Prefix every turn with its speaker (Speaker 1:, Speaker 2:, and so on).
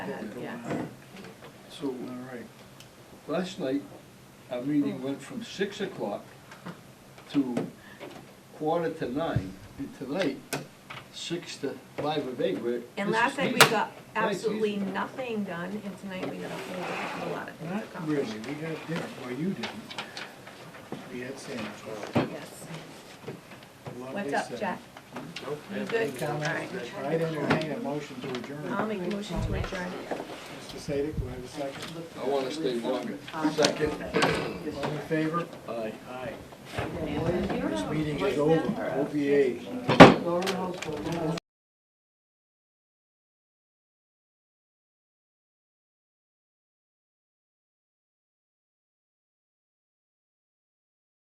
Speaker 1: Uh, Yeah.
Speaker 2: So,
Speaker 3: All right.
Speaker 2: last night, our
Speaker 1: Oh.
Speaker 2: meeting went from six o'clock to quarter to nine, and tonight, six to five of eight, we're. this
Speaker 1: And
Speaker 2: is
Speaker 1: last night we
Speaker 2: easy.
Speaker 1: got
Speaker 2: Nice,
Speaker 1: absolutely
Speaker 2: easy.
Speaker 1: nothing done, and tonight we got a whole heck of a lot of things
Speaker 3: Not
Speaker 1: accomplished.
Speaker 3: really, we got dinner, well, you didn't. We had sandwiches.
Speaker 1: Yes.
Speaker 3: Lovely
Speaker 1: What's up,
Speaker 3: sandwich.
Speaker 1: Jack? You
Speaker 3: Any
Speaker 1: good? All right. Um,
Speaker 3: comments? I entertain a motion to adjourn.
Speaker 1: I'll make a motion to adjourn.
Speaker 3: Mr. Sadik, do I have a second?
Speaker 2: I wanna stay longer. Second.
Speaker 3: All in favor?
Speaker 2: Aye.
Speaker 3: This meeting is over, OVA.